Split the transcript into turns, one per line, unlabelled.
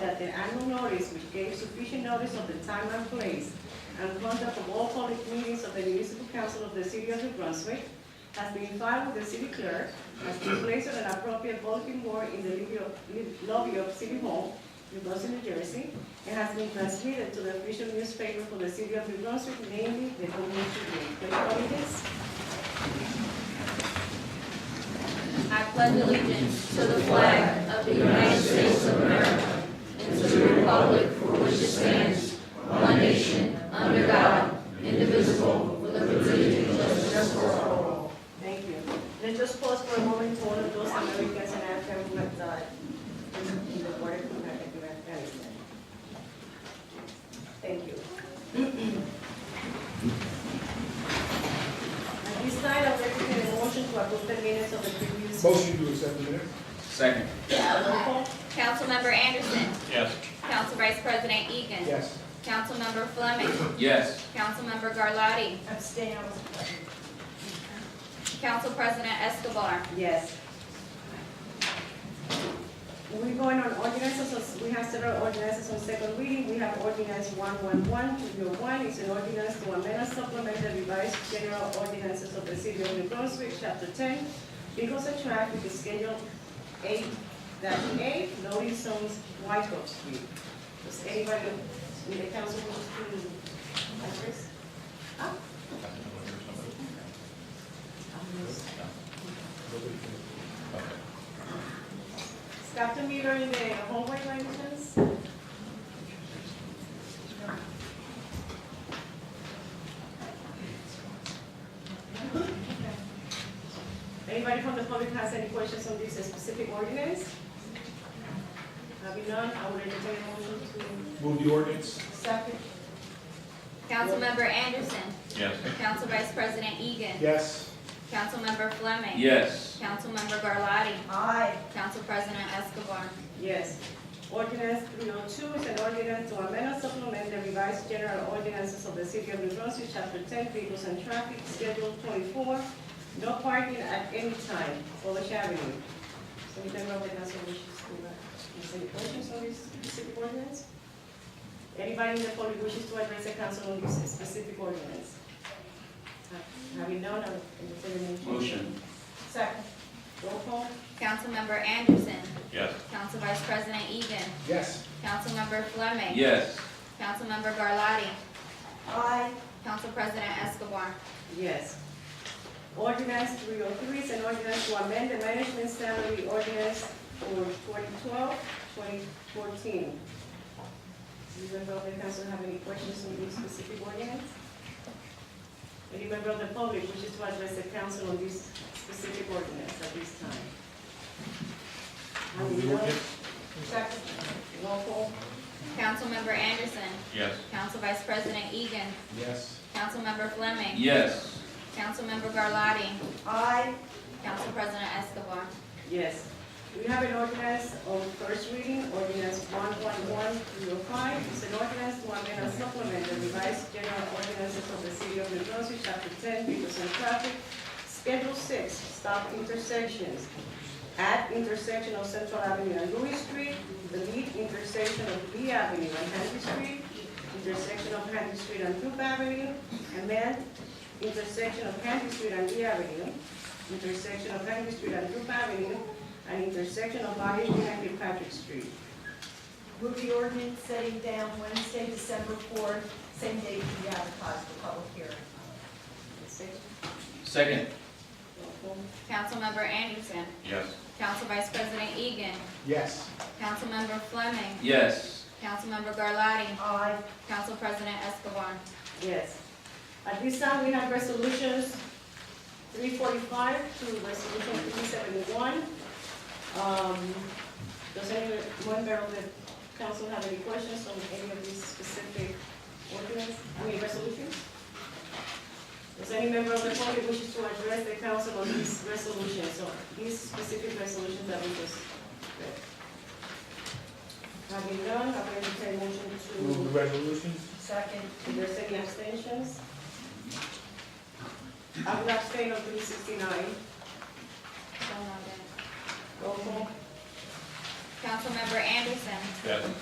that the annual notice which gave sufficient notice of the time and place and conduct of all public meetings of the municipal council of the city of New Brunswick has been filed with the city clerk, has been placed on an appropriate bulletin board in the lobby of- lobby of City Hall, New Brunswick, New Jersey, and has been transmitted to the official newspaper for the city of New Brunswick, namely the Community Day. Can you call me this?
I pledge allegiance to the flag of the United States of America and to the republic for which it stands, one nation, under God, indivisible, with liberty and justice for all.
Thank you. Let's just pause for a moment to all of those Americans and Africans who have died in the war in Afghanistan. Thank you. At this time, I'd like to get a motion to approve the minutes of the previous.
Motion to accept the minutes?
Second.
Roll call.
Councilmember Anderson.
Yes.
Council Vice President Egan.
Yes.
Councilmember Fleming.
Yes.
Councilmember Garlotti.
Abstain, I was present.
Council President Escobar.
Yes. We're going on ordinances, so we have several ordinances on second reading. We have ordinance one one one two zero one, it's an ordinance to amend and supplement the revised general ordinances of the city of New Brunswick, chapter ten, vehicles and traffic, is schedule eight dash eight, loading zones, White Oak Street. Does anybody in the council want to address? Ah, Stop the meter in the hallway, by any chance? Anybody from the public has any questions on this specific ordinance? Having none, I will entertain a motion to
Move the ordinance?
second.
Councilmember Anderson.
Yes.
Council Vice President Egan.
Yes.
Councilmember Fleming.
Yes.
Councilmember Garlotti.
Aye.
Council President Escobar.
Yes. Ordinance three oh two is an ordinance to amend and supplement the revised general ordinances of the city of New Brunswick, chapter ten, vehicles and traffic, schedule twenty-four, no parking at any time, Polish Avenue. So we can go with council wishes to, uh, any questions on this specific ordinance? Anybody in the public wishes to address the council on this specific ordinance? Having none, I'll entertain a motion.
Motion.
Second. Roll call.
Councilmember Anderson.
Yes.
Council Vice President Egan.
Yes.
Councilmember Fleming.
Yes.
Councilmember Garlotti.
Aye.
Council President Escobar.
Yes. Ordinance three oh three is an ordinance to amend the management salary ordinance for 2012-2014. Does the member of the council have any questions on this specific ordinance? Any member of the public wishes to address the council on this specific ordinance at this time? I will
Move the ordinance?
Second. Roll call.
Councilmember Anderson.
Yes.
Council Vice President Egan.
Yes.
Councilmember Fleming.
Yes.
Councilmember Garlotti.
Aye.
Council President Escobar.
Yes. We have an ordinance on first reading, ordinance one one one three oh five. It's an ordinance to amend and supplement the revised general ordinances of the city of New Brunswick, chapter ten, vehicles and traffic, schedule six, stop intersections, at intersection of Central Avenue and Louis Street, the lead intersection of B Avenue and Henry Street, intersection of Henry Street and Duke Avenue, and then intersection of Henry Street and B Avenue, intersection of Henry Street and Duke Avenue, and intersection of Washington and Kilpatrick Street.
Move the ordinance setting down Wednesday, December fourth, same date to be advertised for public hearing.
Second.
Councilmember Anderson.
Yes.
Council Vice President Egan.
Yes.
Councilmember Fleming.
Yes.
Councilmember Garlotti.
Aye.
Council President Escobar.
Yes. At this time, we have resolutions three forty-five to resolution three seventy-one. Um, does any member of the council have any questions on any of these specific ordinance, I mean, resolutions? Does any member of the public wishes to address the council on these resolutions, or these specific resolutions that we just read? Having done, I will entertain a motion to.
Move the resolutions?
Second.
Is there any abstentions? I will abstain on three sixty-nine.
So moved.
Roll call.
Councilmember Anderson.
Yes.